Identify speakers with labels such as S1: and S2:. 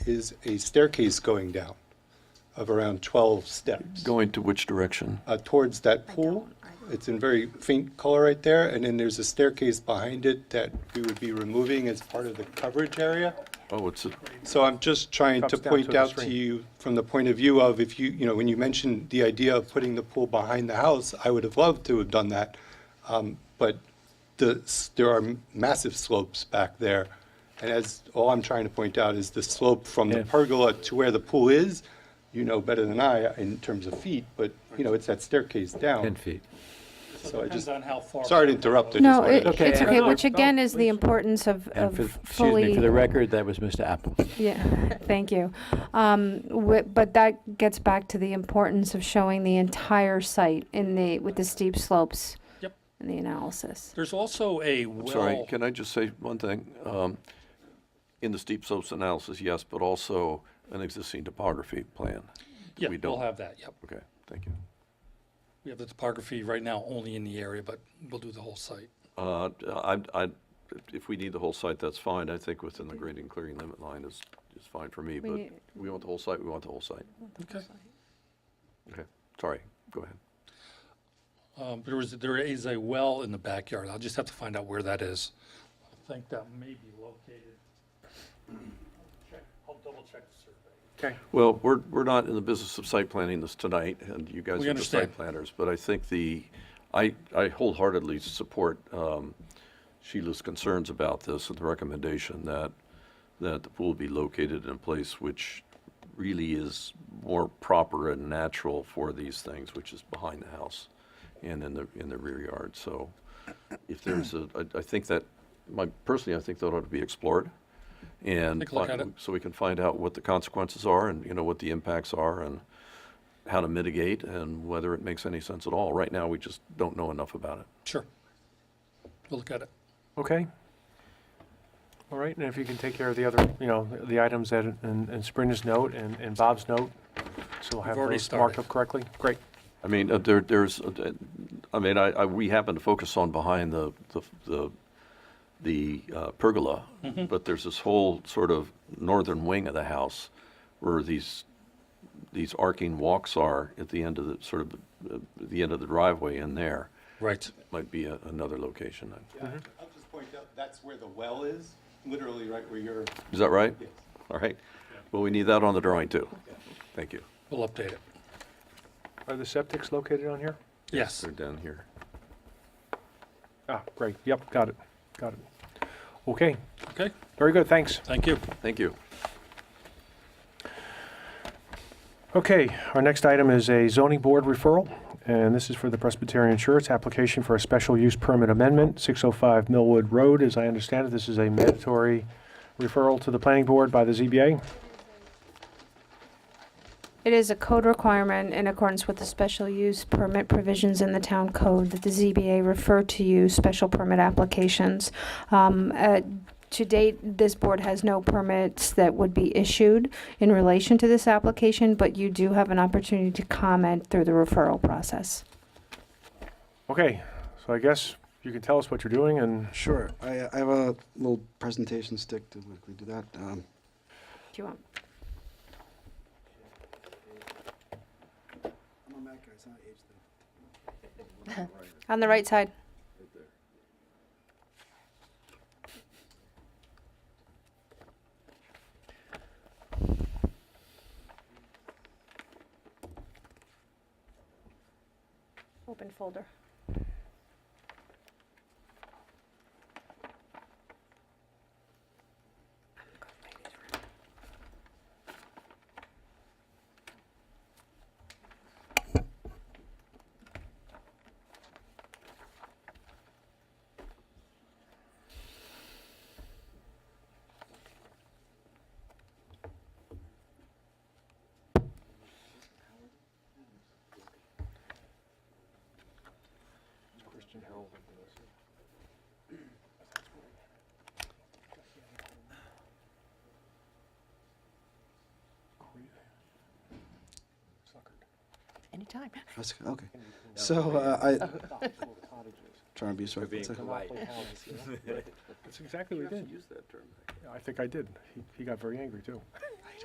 S1: is a staircase going down of around 12 steps
S2: Going to which direction?
S1: uh, towards that pool. It's in very faint color right there, and then there's a staircase behind it that we would be removing as part of the coverage area.
S2: Oh, it's, a-
S1: So I'm just trying to
S3: Drops down to
S1: point
S3: the
S1: out to
S3: stream.
S1: you, from the point of view of if you, you know, when you mentioned the idea of putting the pool behind the house, I would have loved to have done that. Um, But the, s- there are massive slopes back there. And as, all I'm trying to point out is the slope from the pergola to where the pool is, you know better than I in terms of feet, but, you know, it's that staircase down.
S4: Oh.
S5: 10 feet.
S1: So I just,
S6: on how far.
S1: sorry to interrupt. I just
S4: No,
S1: wanted
S4: it-
S1: to-
S5: Okay,
S4: it's
S5: and-
S4: okay,
S5: No,
S4: which again is the importance of
S5: And
S4: of
S5: for, excuse
S4: fully.
S5: me, for the record, that was Mr. Apple.
S4: Yeah, thank you. Um, wi- But that gets back to the importance of showing the entire site in the, with the steep slopes
S6: Yep.
S4: in the analysis.
S6: There's also a well.
S2: sorry, can I just say one thing? Um, In the steep slopes analysis, yes, but also an existing topography plan.
S6: Yeah,
S2: we
S6: we'll
S2: don't-
S6: have that, yep.
S2: Okay, thank you.
S6: We have the topography right now only in the area, but we'll do the whole site.
S2: Uh, I, I, if we need the whole site, that's fine. I think within the grading clearing limit line is, is fine for me, but
S4: need-
S2: we want the whole site, we want the whole site.
S6: Okay.
S2: Okay, sorry, go ahead.
S6: Um, there was, there is a well in the backyard. I'll just have to find out where that is. I think that may be located. Check- I'll double check the survey.
S2: Well, we're, we're not in the business of site planning this tonight, and you guys
S6: We
S2: are the site
S6: understand.
S2: planners, but I think the, I, I wholeheartedly support um, Sheila's concerns about this and the recommendation that, that the pool be located in a place which really is more proper and natural for these things, which is behind the house and in the, in the rear yard. So if there's a, I, I think that, my, personally, I think that ought to be explored. And
S6: Take a look
S2: fi-
S6: at it.
S2: so we can find out what the consequences are and, you know, what the impacts are and how to mitigate and whether it makes any sense at all. Right now, we just don't know enough about it.
S6: Sure. We'll look at it.
S3: Okay. All right, and if you can take care of the other, you know, the items that, in in Sabrina's note and and Bob's note, so we'll have
S6: already
S3: those marked
S6: started.
S3: up correctly. Great.
S2: I mean, uh, there, there's, uh, I mean, I, I, we happen to focus on behind the, the, the, the uh, pergola,
S1: Mm-hmm.
S2: but there's this whole sort of northern wing of the house where these, these arcing walks are at the end of the, sort of, uh, the end of the driveway in there.
S6: Right.
S2: Might be a- another location.
S1: Yeah, I'll just point out, that's where the well is, literally right where you're,
S2: Is that right?
S1: Yes.
S2: All right. Well, we need that on the drawing too. Thank you.
S6: We'll update it.
S3: Are the septics located on here?
S6: Yes.
S2: They're down here.
S3: Ah, great, yep, got it, got it. Okay,
S6: Okay.
S3: very good, thanks.
S6: Thank you.
S2: Thank you.
S3: Okay, our next item is a zoning board referral, and this is for the Presbyterian Church, application for a special use permit amendment, 605 Millwood Road. As I understand it, this is a mandatory referral to the planning board by the ZBA.
S4: It is a code requirement in accordance with the special use permit provisions in the town code that the ZBA refer to you special permit applications. Um, uh, To date, this board has no permits that would be issued in relation to this application, but you do have an opportunity to comment through the referral process.
S3: Okay, so I guess you can tell us what you're doing, and
S7: Sure. I, I have a little presentation stick to quickly do that. Um,
S4: Do you want?
S7: I'm a Mac guy. It's not an age thing.
S4: On the right side. Open folder.
S8: Anytime.
S7: That's- Okay. So uh, I trying to be sorry. It's a-
S3: that's exactly what he did.
S2: Use that term.
S3: I think I did. He- He got very angry, too.